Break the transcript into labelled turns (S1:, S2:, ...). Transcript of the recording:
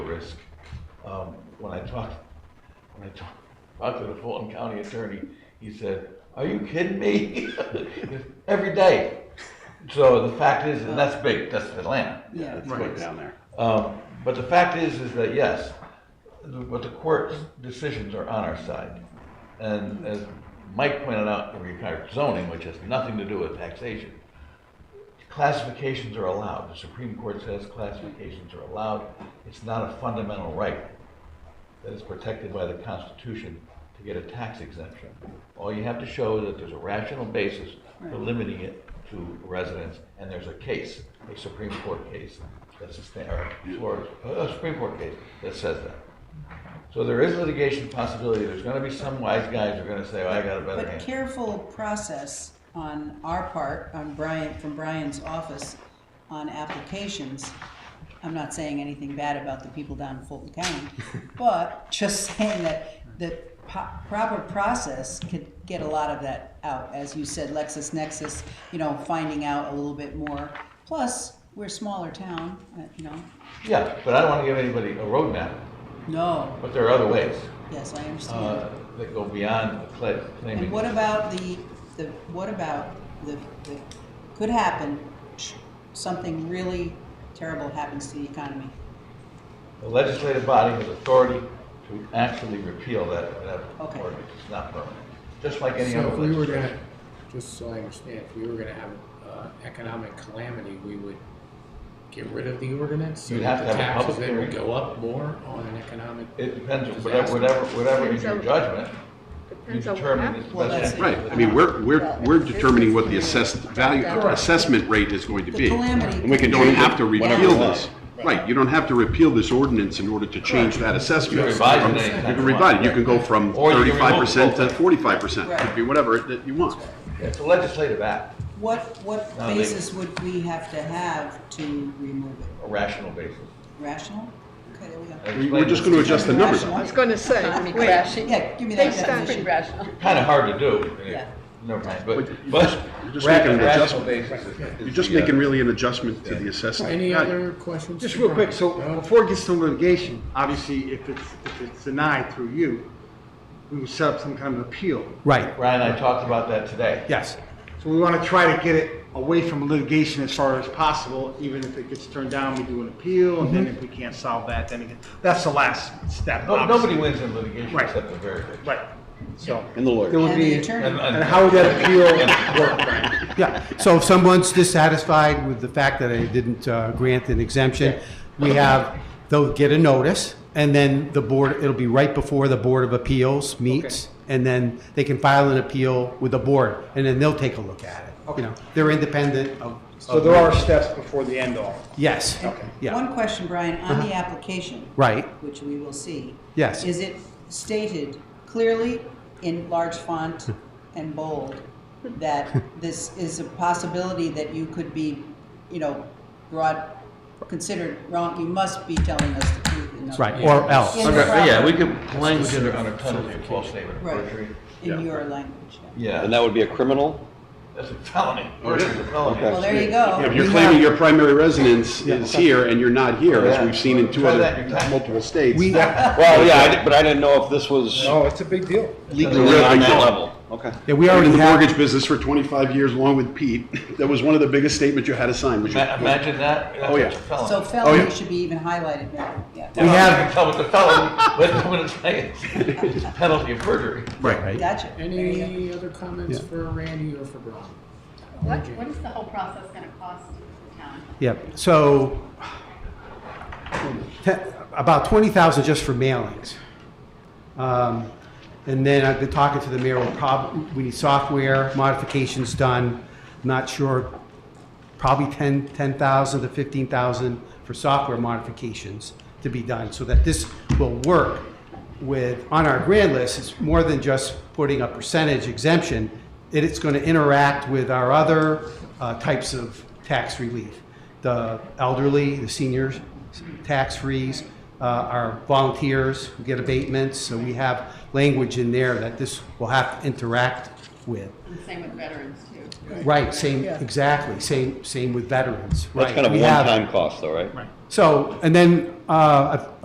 S1: risk. Um, When I talked, when I talked, talked to the Fulton County Attorney, he said, are you kidding me? Every day. So the fact is, and that's big, that's Atlanta.
S2: Yeah.
S1: That's
S3: Right
S1: big.
S3: down there.
S1: Um, But the fact is, is that yes, the- but the court's decisions are on our side. And as Mike pointed out, in regard to zoning, which has nothing to do with taxation, classifications are allowed. The Supreme Court says classifications are allowed. It's not a fundamental right that is protected by the Constitution to get a tax exemption. All you have to show is that there's a rational basis for
S2: Right.
S1: limiting it to residents, and there's a case, a Supreme Court case, that's a sta- or Florida, a Supreme Court case that says that. So there is litigation possibility, there's gonna be some wise guys who are gonna say, "Oh, I got a better
S2: But
S1: hand.
S2: careful process on our part, on Brian, from Brian's office, on applications. I'm not saying anything bad about the people down in Fulton County, but just saying that the po- proper process could get a lot of that out. As you said, LexisNexis, you know, finding out a little bit more. Plus, we're a smaller town, uh, you know.
S1: Yeah, but I don't wanna give anybody a roadmap,
S2: No,
S1: but there are other ways,
S2: yes, I understand.
S1: uh, that go beyond the cla- claiming.
S2: And what about the, the, what about the, the, could happen, sh- something really terrible happens to the economy?
S1: The legislative body has authority to actually repeal that, that
S2: Okay.
S1: ordinance, it's not permanent, just like any
S4: So
S1: other
S4: if we were
S1: legislation.
S4: gonna, just so I understand, if we were gonna have uh, economic calamity, we would get rid of the ordinance? so
S1: You'd
S4: that
S1: have
S4: the
S1: to have a
S4: taxes
S1: public
S4: then would
S1: hearing.
S4: Go up more on an economic,
S1: It depends, on whatever, whatever, whatever in your judgment, you
S5: Depends on what
S1: determine is
S5: happens.
S1: the
S2: Well, that's
S1: best.
S2: it.
S3: Right, I mean, we're, we're, we're determining what the assessed value,
S5: Correct.
S3: assessment rate is going to
S2: The
S3: be.
S2: calamity
S3: And we
S2: could
S3: don't
S2: be
S3: have to
S2: whatever
S3: repeal
S2: we want.
S3: this. Right, you don't have to repeal this ordinance in order to change that assessment.
S1: You can revise it
S3: From-
S1: anytime
S3: You can
S1: you
S3: revise it,
S1: want.
S3: you can go from
S1: Or you can remove
S3: thirty-five percent to
S1: it.
S3: forty-five percent, it
S2: Right.
S3: could be whatever it- that you want.
S1: It's a legislative act,
S2: What, what
S1: No, they-
S2: basis would we have to have to remove it?
S1: a rational basis.
S2: Rational? Okay, there we go.
S1: I
S3: We- We're just
S1: explained
S3: gonna
S1: this.
S3: adjust the numbers.
S5: I was gonna say, I mean, crashing.
S2: Yeah, give me that
S5: Based on,
S2: definition.
S1: Kinda hard to do,
S2: Yeah.
S1: never mind,
S3: But
S1: but,
S3: you-
S1: but.
S3: you're just
S1: ra-
S3: making an
S1: rational
S3: adjustment.
S1: basis is- is
S3: You're just
S1: the, uh,
S3: making really an adjustment to the assessed
S4: any
S3: value.
S4: other questions?
S6: Just
S4: for
S6: real quick,
S4: Brian?
S6: so
S4: No?
S6: before it gets to litigation, obviously, if it's, if it's denied through you, we will set up some kind of appeal.
S7: Right,
S1: Ryan and I talked about that today.
S6: Yes. So we want to try to get it away from litigation as far as possible, even if it gets turned down, we do an appeal, and then if we can't solve that, then again, that's the last step.
S1: No,
S6: obviously.
S1: nobody wins in litigation
S6: Right.
S1: except the very rich.
S6: Right, so.
S3: And the lawyer.
S6: There would
S2: And the
S6: be,
S1: And-
S2: attorney,
S6: and how would that appeal work, Brian?
S7: yeah. So if someone's dissatisfied with the fact that I didn't uh, grant an exemption, we have, they'll get a notice, and then the board, it'll be right before the Board of Appeals meets, and then they can file an appeal with the board, and then they'll take a look at it. You know, they're independent of.
S6: So there are steps before the end all.
S7: Yes, yeah, Uh-huh.
S2: one question, Brian, on the application.
S7: right,
S2: Which we will see.
S7: Yes.
S2: Is it stated clearly in large font
S7: Hmm.
S2: and bold that this is a possibility that you could be, you know, brought, considered wrong? You must be telling us the truth. and nothing
S7: right, or else.
S2: In
S1: Under-
S2: the-
S1: yeah, we could language it under penalty of false statement of
S2: Right.
S1: perjury.
S2: In your language. yeah.
S1: Yeah,
S8: And that would be a criminal?
S1: that's a felony,
S3: Oh, it is?
S1: perjury's a felony.
S2: Well, there you go.
S3: If you're claiming your primary residence is here and you're not here, as we've seen in two
S1: Try
S3: other,
S1: that your time.
S3: multiple states.
S7: We-
S8: Well, yeah, I did- but I didn't know if this was
S6: No, it's a big deal.
S8: legally on that level. Okay.
S7: Yeah, we
S3: I was
S7: already
S3: in the
S7: have.
S3: mortgage business for 25 years along with Pete. That was one of the biggest statements you had to sign, was your-
S1: Ma- Imagine that,
S3: Oh, yeah.
S1: that's a felony.
S2: So
S3: Oh, yeah.
S2: felony should be even highlighted now,
S7: We
S2: yeah.
S1: Well,
S7: have-
S1: I can tell what the felony, what what it's saying. It's penalty of perjury.
S7: Right.
S2: Gotcha. There you go.
S4: Any other comments for Randy or for Brian?
S9: What, what is the whole process gonna cost the town?
S7: Yep, so te- about 20,000 just for mailings. Um, And then I've been talking to the mayor, we'll prob, we need software modifications done, not sure, probably 10, 10,000 to 15,000 for software modifications to be done, so that this will work with, on our grant list, it's more than just putting a percentage exemption, it is going to interact with our other uh, types of tax relief. The elderly, the seniors, tax freeze, uh, our volunteers who get abatements, so we have language in there that this will have to interact with.
S9: And same with veterans too.
S7: Right, same, exactly, same, same with veterans, right.
S8: That's kind of
S7: We have-
S8: one-time cost though, right?
S7: So, and then, uh, I've